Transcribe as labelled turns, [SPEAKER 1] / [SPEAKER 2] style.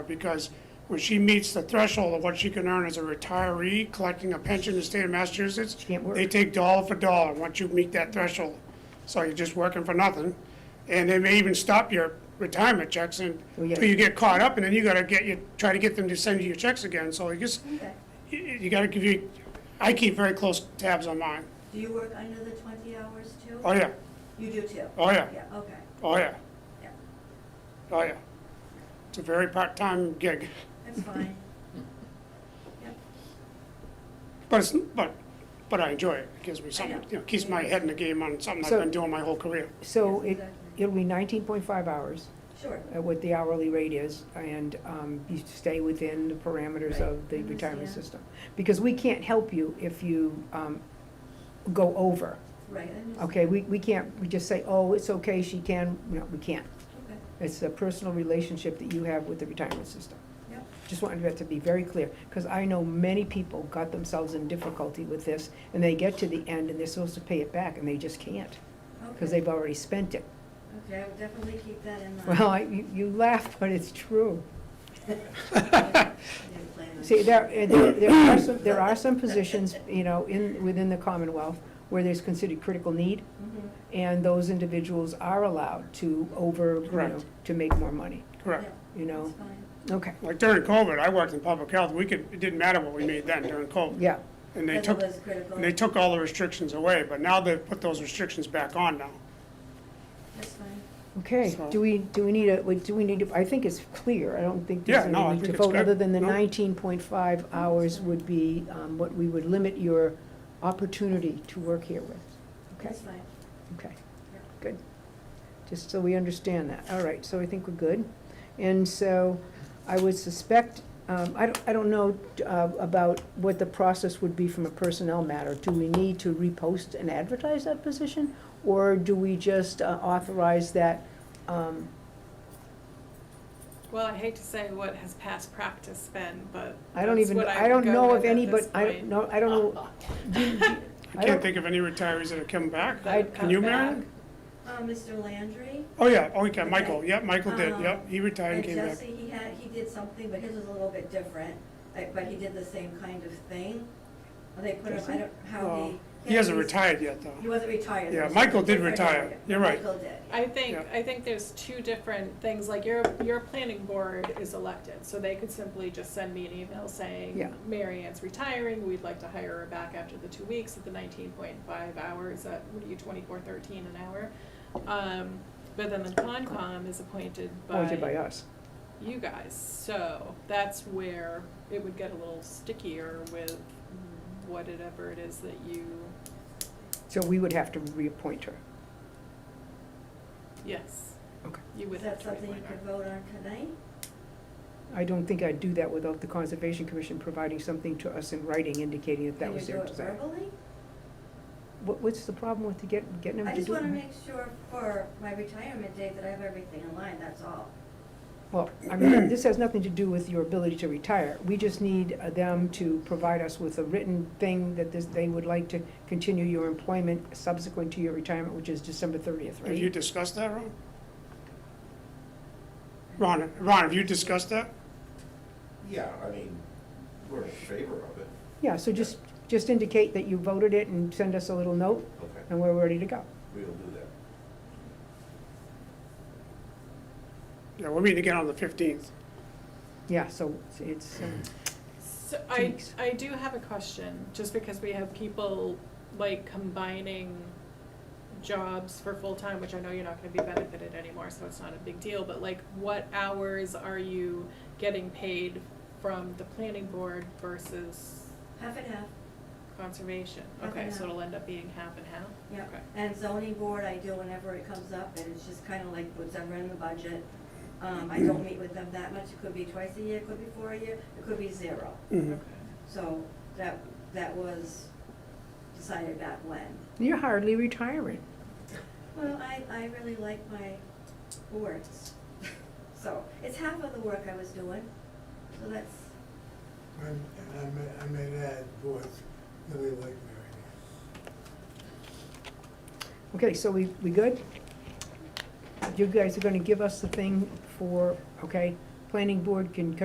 [SPEAKER 1] because when she meets the threshold of what she can earn as a retiree collecting a pension in the state of Massachusetts,
[SPEAKER 2] can't work.
[SPEAKER 1] they take dollar for dollar once you meet that threshold. So you're just working for nothing. And they may even stop your retirement checks and,
[SPEAKER 2] Oh, yeah.
[SPEAKER 1] till you get caught up and then you gotta get your, try to get them to send you your checks again. So I guess, you, you gotta give you, I keep very close tabs on mine.
[SPEAKER 3] Do you work under the twenty hours too?
[SPEAKER 1] Oh, yeah,
[SPEAKER 3] You do too?
[SPEAKER 1] oh, yeah.
[SPEAKER 3] Yeah, okay,
[SPEAKER 1] Oh, yeah.
[SPEAKER 3] Yeah.
[SPEAKER 1] Oh, yeah. It's a very part-time gig,
[SPEAKER 3] that's fine. Yep,
[SPEAKER 1] but it's, but, but I enjoy it. It gives me something,
[SPEAKER 3] know.
[SPEAKER 1] you know, keeps my head in the game on something I've
[SPEAKER 2] So-
[SPEAKER 1] been doing my whole career.
[SPEAKER 2] So
[SPEAKER 3] Yes,
[SPEAKER 2] it,
[SPEAKER 3] exactly.
[SPEAKER 2] it'll be nineteen point five hours,
[SPEAKER 3] sure.
[SPEAKER 2] uh, what the hourly rate is, and um, you stay within the parameters of the
[SPEAKER 3] Right.
[SPEAKER 2] retirement
[SPEAKER 3] Understand.
[SPEAKER 2] system. Because we can't help you if you um, go over,
[SPEAKER 3] Right, I understand.
[SPEAKER 2] okay? We, we can't, we just say, oh, it's okay, she can, no, we can't.
[SPEAKER 3] Okay,
[SPEAKER 2] It's a personal relationship that you have with the retirement system.
[SPEAKER 3] Yep.
[SPEAKER 2] Just wanted that to be very clear, because I know many people got themselves in difficulty with this, and they get to the end and they're supposed to pay it back, and they just can't, because
[SPEAKER 3] okay.
[SPEAKER 2] they've already spent it.
[SPEAKER 3] Okay, I will definitely keep that in mind.
[SPEAKER 2] Well, I- you, you laugh, but it's true.
[SPEAKER 3] I didn't plan on-
[SPEAKER 2] See, there, and there there are some, there are some positions, you know, in, within the Commonwealth where there's considered critical need,
[SPEAKER 3] Mhm,
[SPEAKER 2] and those individuals are allowed to over, you know,
[SPEAKER 1] Correct.
[SPEAKER 2] to make more money,
[SPEAKER 1] Correct.
[SPEAKER 2] you know?
[SPEAKER 3] That's fine.
[SPEAKER 2] Okay,
[SPEAKER 1] Like during COVID, I worked in public health. We could, it didn't matter what we made then during COVID.
[SPEAKER 2] yeah,
[SPEAKER 1] And they
[SPEAKER 3] Because it
[SPEAKER 1] took,
[SPEAKER 3] was critical.
[SPEAKER 1] and they took all the restrictions away, but now they've put those restrictions back on now.
[SPEAKER 3] That's fine.
[SPEAKER 2] okay,
[SPEAKER 1] So-
[SPEAKER 2] do we, do we need a, we- do we need, to- I think it's clear, I don't think
[SPEAKER 1] Yeah,
[SPEAKER 2] there's
[SPEAKER 1] no, I
[SPEAKER 2] any need
[SPEAKER 1] think
[SPEAKER 2] to
[SPEAKER 1] it's
[SPEAKER 2] vote, other
[SPEAKER 1] good.
[SPEAKER 2] than the
[SPEAKER 1] No.
[SPEAKER 2] nineteen point five hours would be, um, what we would limit your opportunity to work here with, okay?
[SPEAKER 3] That's fine.
[SPEAKER 2] Okay, good. Just so we understand that. All right, so I think we're good. And so I would suspect, um, I don't, I don't know uh, about what the process would be from a personnel matter. Do we need to repost and advertise that position? Or do we just uh, authorize that? um,
[SPEAKER 4] Well, I hate to say what has past practice been, but
[SPEAKER 2] I don't
[SPEAKER 4] that's
[SPEAKER 2] even,
[SPEAKER 4] what
[SPEAKER 2] I
[SPEAKER 4] would
[SPEAKER 2] don't
[SPEAKER 4] go
[SPEAKER 2] know
[SPEAKER 4] with
[SPEAKER 2] of
[SPEAKER 4] at
[SPEAKER 2] any,
[SPEAKER 4] this
[SPEAKER 2] but I don't
[SPEAKER 4] point.
[SPEAKER 2] know, I don't know.
[SPEAKER 1] I can't think of any retirees that have come back.
[SPEAKER 4] That would
[SPEAKER 2] I-
[SPEAKER 4] come
[SPEAKER 1] Can you,
[SPEAKER 4] back.
[SPEAKER 1] Marion?
[SPEAKER 3] Uh, Mr. Landry?
[SPEAKER 1] Oh, yeah, oh, yeah, Michael,
[SPEAKER 3] Okay.
[SPEAKER 1] yep, Michael did,
[SPEAKER 3] Um,
[SPEAKER 1] yep. He retired and
[SPEAKER 3] And
[SPEAKER 1] came back.
[SPEAKER 3] Jesse, he had, he did something, but his was a little bit different, like, but he did the same kind of thing. Or They put him, I
[SPEAKER 2] Jesse?
[SPEAKER 3] don't, how
[SPEAKER 1] Well,
[SPEAKER 3] he.
[SPEAKER 1] He hasn't
[SPEAKER 3] he's-
[SPEAKER 1] retired yet,
[SPEAKER 3] He
[SPEAKER 1] though.
[SPEAKER 3] wasn't retired.
[SPEAKER 1] Yeah,
[SPEAKER 3] It was
[SPEAKER 1] Michael did
[SPEAKER 3] different
[SPEAKER 1] retire.
[SPEAKER 3] area.
[SPEAKER 1] You're right.
[SPEAKER 3] Michael did.
[SPEAKER 4] I think,
[SPEAKER 1] Yeah.
[SPEAKER 4] I think there's two different things, like your, your planning board is elected, so they could simply just send me an email
[SPEAKER 2] Yeah.
[SPEAKER 4] saying, Mary Ann's retiring, we'd like to hire her back after the two weeks at the nineteen point five hours, at, what are you, twenty-four thirteen an hour? Um, but then the Concom is appointed
[SPEAKER 2] Appointed oh, by us.
[SPEAKER 4] you guys. So that's where it would get a little stickier with whatever it is that you,
[SPEAKER 2] So we would have to reappoint her.
[SPEAKER 4] yes,
[SPEAKER 2] Okay.
[SPEAKER 4] you would
[SPEAKER 3] Is
[SPEAKER 4] have
[SPEAKER 3] that
[SPEAKER 4] to
[SPEAKER 3] something you
[SPEAKER 4] reappoint her.
[SPEAKER 3] could vote on tonight?
[SPEAKER 2] I don't think I'd do that without the Conservation Commission providing something to us in writing indicating that that was their
[SPEAKER 3] Can
[SPEAKER 2] desire.
[SPEAKER 3] you do it verbally?
[SPEAKER 2] What, what's the problem with to get, getting them to
[SPEAKER 3] I
[SPEAKER 2] do?
[SPEAKER 3] just wanna
[SPEAKER 2] it?
[SPEAKER 3] make sure for my retirement date that I have everything in line, that's all.
[SPEAKER 2] Well, I mean, this has nothing to do with your ability to retire. We just need uh, them to provide us with a written thing that this, they would like to continue your employment subsequent to your retirement, which is December thirtieth,
[SPEAKER 1] Have you
[SPEAKER 2] right?
[SPEAKER 1] discussed that, Ron? Ron, Ron, have you discussed that?
[SPEAKER 5] Yeah, I mean, we're in favor of it.
[SPEAKER 2] Yeah, so just, just indicate that you voted it and send us a little note,
[SPEAKER 5] Okay,
[SPEAKER 2] and we're ready to go.
[SPEAKER 5] we will do that.
[SPEAKER 1] Yeah, we're meeting again on the fifteenth.
[SPEAKER 2] Yeah, so it's, um,
[SPEAKER 4] So
[SPEAKER 2] Two
[SPEAKER 4] I,
[SPEAKER 2] weeks.
[SPEAKER 4] I do have a question, just because we have people like combining jobs for full-time, which I know you're not gonna be benefited anymore, so it's not a big deal, but like, what hours are you getting paid from the planning board versus
[SPEAKER 3] Half and half,
[SPEAKER 4] conservation?
[SPEAKER 3] Half
[SPEAKER 4] Okay,
[SPEAKER 3] and
[SPEAKER 4] so
[SPEAKER 3] half.
[SPEAKER 4] it'll end up being half and half?
[SPEAKER 3] yeah.
[SPEAKER 4] Okay.
[SPEAKER 3] And zoning board, I do whenever it comes up, and it's just kinda like whatever in the budget. Um, I don't meet with them that much, it could be twice a year, it could be four a year, it could be zero.
[SPEAKER 1] Mm-hmm.
[SPEAKER 4] Okay.
[SPEAKER 3] So that, that was decided back when.
[SPEAKER 2] you're hardly retiring.
[SPEAKER 3] Well, I, I really like my awards. So it's half of the work I was doing, so that's,
[SPEAKER 6] I'm- And I may, I may add, boys really like Mary Ann.
[SPEAKER 2] Okay, so we, we good? You guys are gonna give us the thing for, okay, planning board can